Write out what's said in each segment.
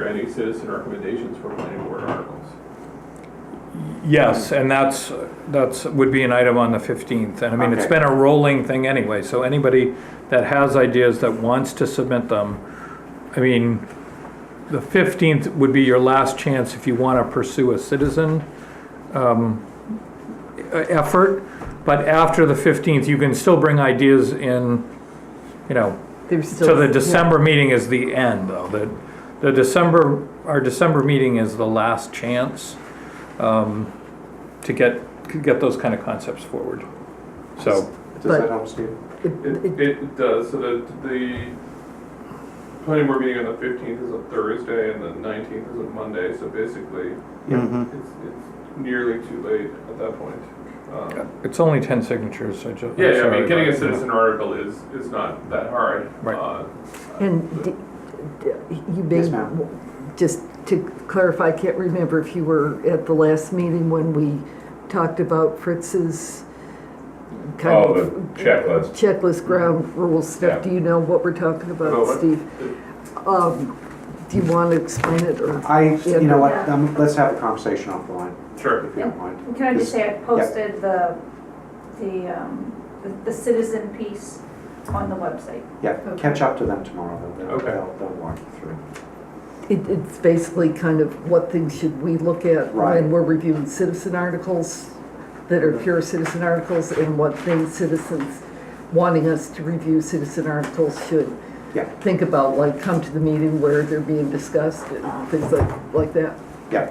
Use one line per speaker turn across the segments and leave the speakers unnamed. there any citizen recommendations for planning board articles?
Yes, and that's, that's, would be an item on the 15th. And I mean, it's
Okay.
been a rolling thing anyway, so anybody that has ideas that wants to submit them, I mean, the 15th would be your last chance if you want to pursue a citizen um, e- effort. But after the 15th, you can still bring ideas in, you know,
There's still.
so the
yeah.
December meeting is the end, though. The, the December, our December meeting is the last chance um, to get, to get those kind of concepts forward. So,
Does
But-
that help, Steve?
It-
It,
it-
it does, so the, the planning board meeting on the fifteenth is a Thursday and the nineteenth is a Monday, so basically,
Mm-hmm.
it's, it's nearly too late at that point. Um,
it's only 10 signatures, so just.
Yeah, yeah, I mean, getting a citizen article is, is not that hard.
Right.
Uh,
And d- d- you may,
Yes, ma'am.
just to clarify, I can't remember if you were at the last meeting when we talked about Fritz's kind
Oh,
of.
the checklist. Mm-hmm.
Checklist ground rules stuff.
Yeah.
Do you know what we're talking
About
about,
what?
Steve? Um, Do you want to explain it or?
I, you know what, um, let's have a conversation offline,
Sure.
if you don't mind.
Can I
Yes.
just say, I posted the, the, um, the- the citizen piece on the website.
Yeah, catch up to them tomorrow, they'll,
Okay.
they'll, they'll walk you through.
It, it's basically kind of what things should we look at
Right.
when we're reviewing citizen articles that are pure citizen articles and what things citizens wanting us to review citizen articles should
Yeah.
think about, like come to the meeting where they're being discussed and things like, like that.
Yeah,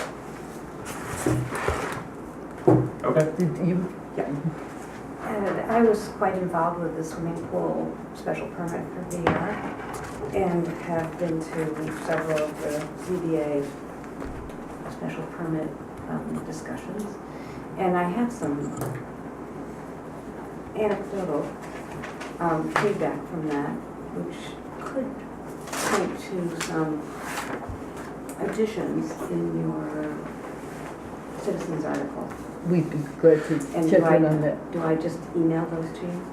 Okay.
Did you,
And I was quite involved with the swimming pool special permit for VR and have been to several of the ZBA special permit um, discussions. And I had some anecdotal um, feedback from that, which could point to some additions in your citizens article.
we'd be glad to
And
check
do I-
in on that.
Do I just email those to you?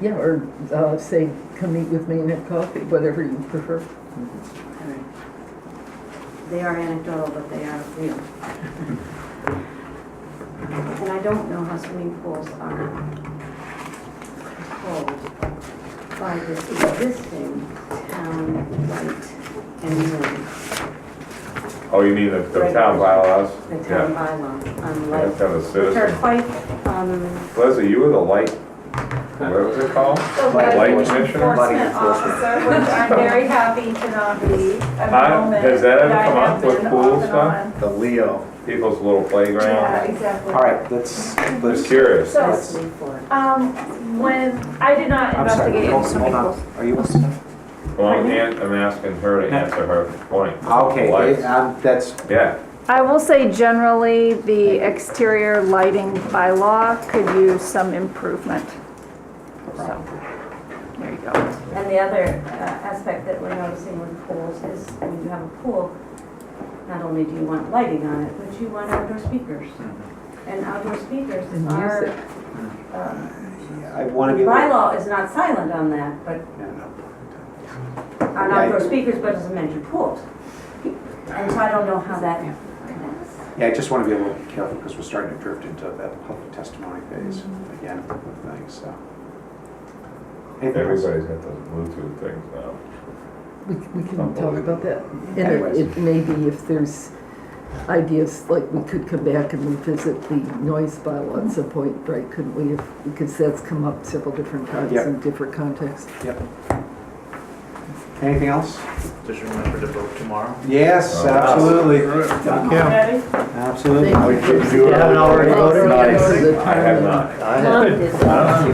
Yeah, or, uh, say, come meet with me and have coffee, whatever you prefer.
Alright. They are anecdotal, but they are real. And I don't know how swimming pools are controlled by the existing town light and noise,
Oh, you mean the, the town bylaws?
the town
Yeah,
bylaw on
you have
light.
to have a
Which are
citizen.
quite, um,
Leslie, you were the light, what was it called? Light commissioner?
Light enforcement.
Enforcement officer, which I'm very happy to not be at the
Huh?
moment.
Has that ever
but I
come
have
up with
been
pool
off and
stuff?
on.
The Leo.
People's little
Yeah,
playground.
exactly.
all right, let's,
Just
let's,
curious.
So,
that's me for it.
um, when, I did not
I'm sorry, hold
investigate any
hold
swimming
on,
pools.
are you listening?
Well, I'm, an- I'm asking her to answer her point.
Okay,
Lights.
they- um, that's,
Yeah,
I will say generally, the exterior lighting bylaw could use some improvement. So, there you go.
And the other uh, aspect that we're noticing with pools is when you have a pool,
Not only do you want lighting on it, but you want outdoor speakers.
Mm-hmm.
and outdoor speakers
And
are,
music.
um,
I wanna be.
Bylaw is not silent on that, but
Yeah, no.
on outdoor speakers, but doesn't mention pools. And so I don't know how that connects.
Yeah, I just want to be a little bit careful because we're starting to drift into that public testimony phase again with things, so. Anything else?
everybody's got those Bluetooth things now.
We, we can talk about that. And it-
Anyways.
it may be if there's ideas, like we could come back and revisit the noise bylaw at some point, right? Couldn't we, if- because that's come up several different times
Yep.
in different contexts.
Anything else?
Just remember to vote tomorrow.
Yes,
Oh.
absolutely.
ready?
Absolutely.
Thank
you.
haven't already voted?
Thanks for the
I have
time.
not.
I
Love
have.
this.
I don't know.